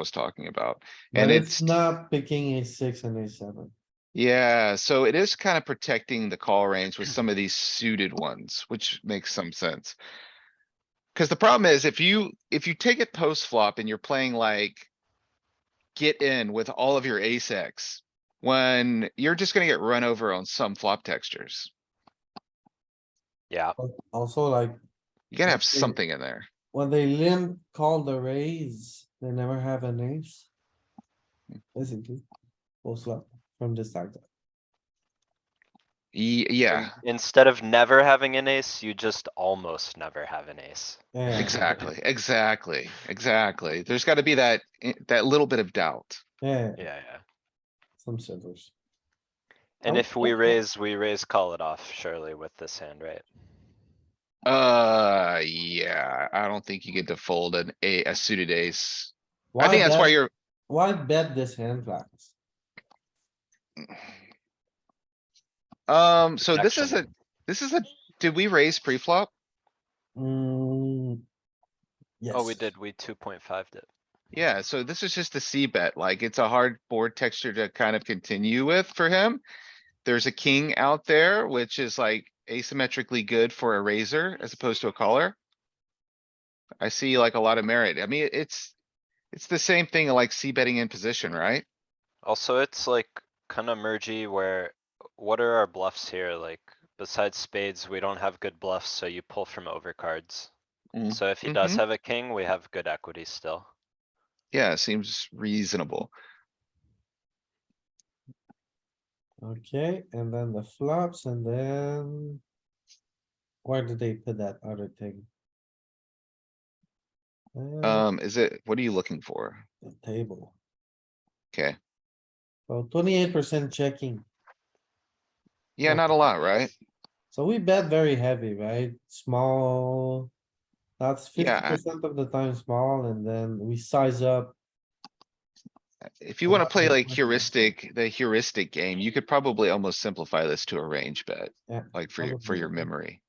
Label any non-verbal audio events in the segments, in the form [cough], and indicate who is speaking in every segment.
Speaker 1: was talking about.
Speaker 2: And
Speaker 1: And
Speaker 2: it's
Speaker 1: it's,
Speaker 2: not picking a six and a seven.
Speaker 1: yeah, so it is kind of protecting the call range with some of these suited ones, which makes some sense. Cause the problem is if you, if you take it post flop and you're playing like. Get in with all of your ace X, when you're just gonna get run over on some flop textures.
Speaker 3: Yeah,
Speaker 2: But Also like
Speaker 1: You gotta have
Speaker 2: Okay.
Speaker 1: something in there.
Speaker 2: when they limp call the raise, they never have an ace. Basically, post flop from the start.
Speaker 1: Ye-
Speaker 3: in-
Speaker 1: Yeah,
Speaker 3: instead of never having an ace, you just almost never have an ace.
Speaker 2: Yeah.
Speaker 1: exactly, exactly, exactly. There's gotta be that, eh, that little bit of doubt.
Speaker 2: Yeah,
Speaker 3: Yeah, yeah.
Speaker 2: some servers.
Speaker 3: And
Speaker 2: Oh,
Speaker 3: if we
Speaker 2: okay.
Speaker 3: raise, we raise, call it off surely with this hand, right?
Speaker 1: Uh, yeah, I don't think you get to fold an a, a suited ace. I
Speaker 2: Why
Speaker 1: think that's why
Speaker 2: bet-
Speaker 1: you're,
Speaker 2: Why bet this hand flags?
Speaker 1: um, so this is a,
Speaker 3: Protection.
Speaker 1: this is a, did we raise pre-flop?
Speaker 2: Mm. Yes.
Speaker 3: Oh, we did, we two point five it.
Speaker 1: Yeah, so this is just a C bet, like it's a hard board texture to kind of continue with for him. There's a king out there, which is like asymmetrically good for a razor as opposed to a caller. I see like a lot of merit. I mean, it's, it's the same thing like C betting in position, right?
Speaker 3: Also, it's like kinda mergy where, what are our bluffs here? Like, besides spades, we don't have good bluffs, so you pull from overcards.
Speaker 1: Mm.
Speaker 3: So if he does
Speaker 1: Mhm.
Speaker 3: have a king, we have good equity still.
Speaker 1: Yeah, seems reasonable.
Speaker 2: Okay, and then the flops and then. Where did they put that other thing? Uh,
Speaker 1: Um, is it, what are you looking for?
Speaker 2: the table.
Speaker 1: Okay,
Speaker 2: So twenty-eight percent checking.
Speaker 1: yeah,
Speaker 2: Okay.
Speaker 1: not a lot, right?
Speaker 2: So we bet very heavy, right? Small. That's fifty
Speaker 1: Yeah, I-
Speaker 2: percent of the time small and then we size up.
Speaker 1: If you
Speaker 2: Well,
Speaker 1: wanna play
Speaker 2: that's
Speaker 1: like
Speaker 2: my thing.
Speaker 1: heuristic, the heuristic game, you could probably almost simplify this to a range bet.
Speaker 2: Yeah,
Speaker 1: Like for your, for
Speaker 2: probably.
Speaker 1: your memory.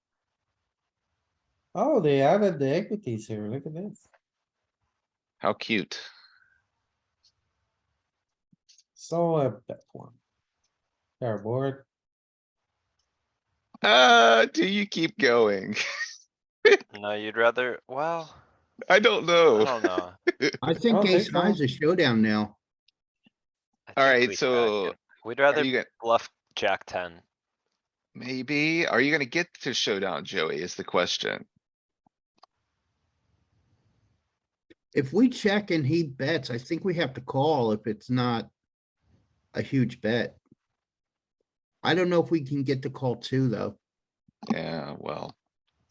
Speaker 2: Oh, they added the equities here. Look at this.
Speaker 1: How cute.
Speaker 2: So I bet one. Pair board.
Speaker 1: Uh, do you keep going? [laughs]
Speaker 3: No, you'd rather, well,
Speaker 1: I don't
Speaker 3: I
Speaker 1: know.
Speaker 3: don't know.
Speaker 4: I
Speaker 2: don't
Speaker 4: think
Speaker 2: think
Speaker 4: ace high's a showdown now.
Speaker 3: I think
Speaker 1: Alright,
Speaker 3: we jack
Speaker 1: so
Speaker 3: it. We'd
Speaker 1: Are
Speaker 3: rather
Speaker 1: you gonna,
Speaker 3: bluff jack ten.
Speaker 1: maybe, are you gonna get to showdown, Joey, is the question.
Speaker 4: If we check and he bets, I think we have to call if it's not a huge bet. I don't know if we can get the call too, though.
Speaker 1: Yeah, well,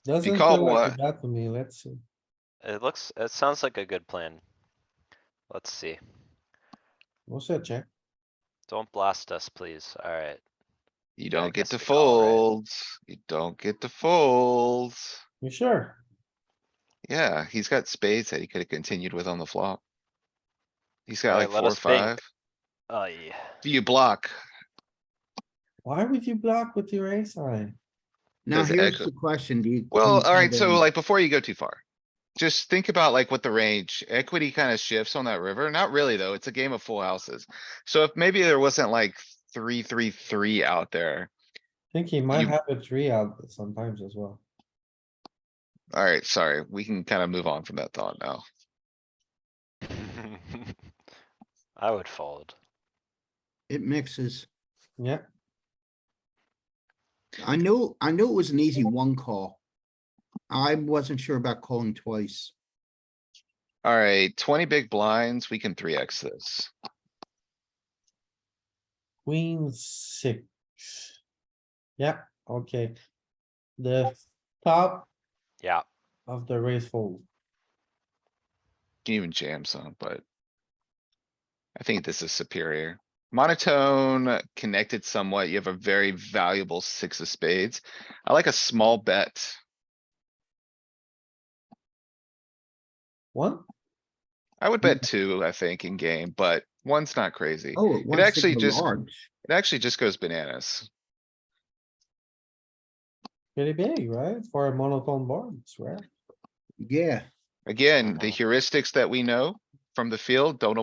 Speaker 2: Doesn't
Speaker 1: call
Speaker 2: feel like a
Speaker 1: what?
Speaker 2: bet to me. Let's see.
Speaker 3: It looks, it sounds like a good plan. Let's see.
Speaker 2: We'll see a check.
Speaker 3: Don't blast us, please. Alright.
Speaker 1: you
Speaker 3: I
Speaker 1: don't get
Speaker 3: guess
Speaker 1: to
Speaker 3: we call, right?
Speaker 1: fold. You don't get to fold.
Speaker 2: You sure?
Speaker 1: Yeah, he's got spades that he could have continued with on the flop. He's got
Speaker 3: Alright,
Speaker 1: like
Speaker 3: let
Speaker 1: four, or
Speaker 3: us think.
Speaker 1: five.
Speaker 3: Oh, yeah.
Speaker 1: Do you block?
Speaker 2: Why would you block with your ace high?
Speaker 4: Now,
Speaker 1: Does
Speaker 4: here's
Speaker 1: echo-
Speaker 4: the question, do you? can
Speaker 1: Well,
Speaker 4: you
Speaker 1: alright, so
Speaker 4: combine-
Speaker 1: like before you go too far. Just think about like what the range equity kind of shifts on that river. Not really, though. It's a game of full houses. So if maybe there wasn't like three, three, three out there.
Speaker 2: Think he might
Speaker 1: You-
Speaker 2: have a three out sometimes as well.
Speaker 1: Alright, sorry. We can kind of move on from that thought now.
Speaker 3: [laughs] I would fold.
Speaker 4: It mixes.
Speaker 2: Yeah,
Speaker 4: I knew, I knew it was an easy one call. I wasn't sure about calling twice.
Speaker 1: Alright, twenty big blinds. We can three X this.
Speaker 2: queen six. Yeah, okay. The top
Speaker 3: Yeah,
Speaker 2: of the race fold.
Speaker 1: Can even jam some, but. I think this is superior. Monotone connected somewhat. You have a very valuable six of spades. I like a small bet.
Speaker 2: One,
Speaker 1: I would bet two, I think, in game, but one's not crazy.
Speaker 4: Oh, it wants to
Speaker 1: actually
Speaker 4: go
Speaker 1: just-
Speaker 4: large.
Speaker 1: It actually just goes bananas.
Speaker 2: pretty big, right? For a monotone board, it's rare.
Speaker 4: Yeah,
Speaker 1: Again, the
Speaker 3: Uh-huh.
Speaker 1: heuristics that we know, from the field, don't